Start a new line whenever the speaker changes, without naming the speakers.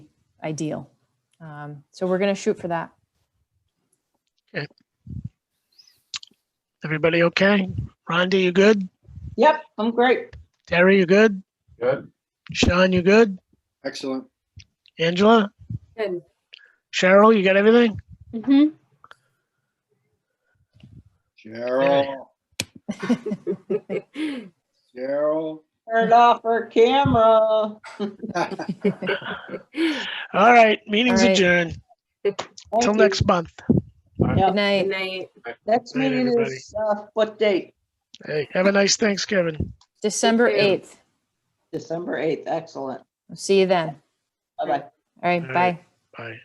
ideal. Um, So we're going to shoot for that.
Everybody okay? Rhonda, you good?
Yep, I'm great.
Terry, you good?
Good.
Sean, you good?
Excellent.
Angela?
Good.
Cheryl, you got everything?
Mm-hmm.
Cheryl, Cheryl.
Turn off her camera.
All right, meeting's
All right.
adjourned.
Thank
Till
you.
next month.
Good
Yep.
night.
night.
Next
Night,
meeting
everybody.
is, uh, what date?
Hey, have a nice Thanksgiving.
December
Take care.
8th.
December 8th, excellent.
I'll See you then.
Bye-bye.
All right,
All right.
bye.
Bye.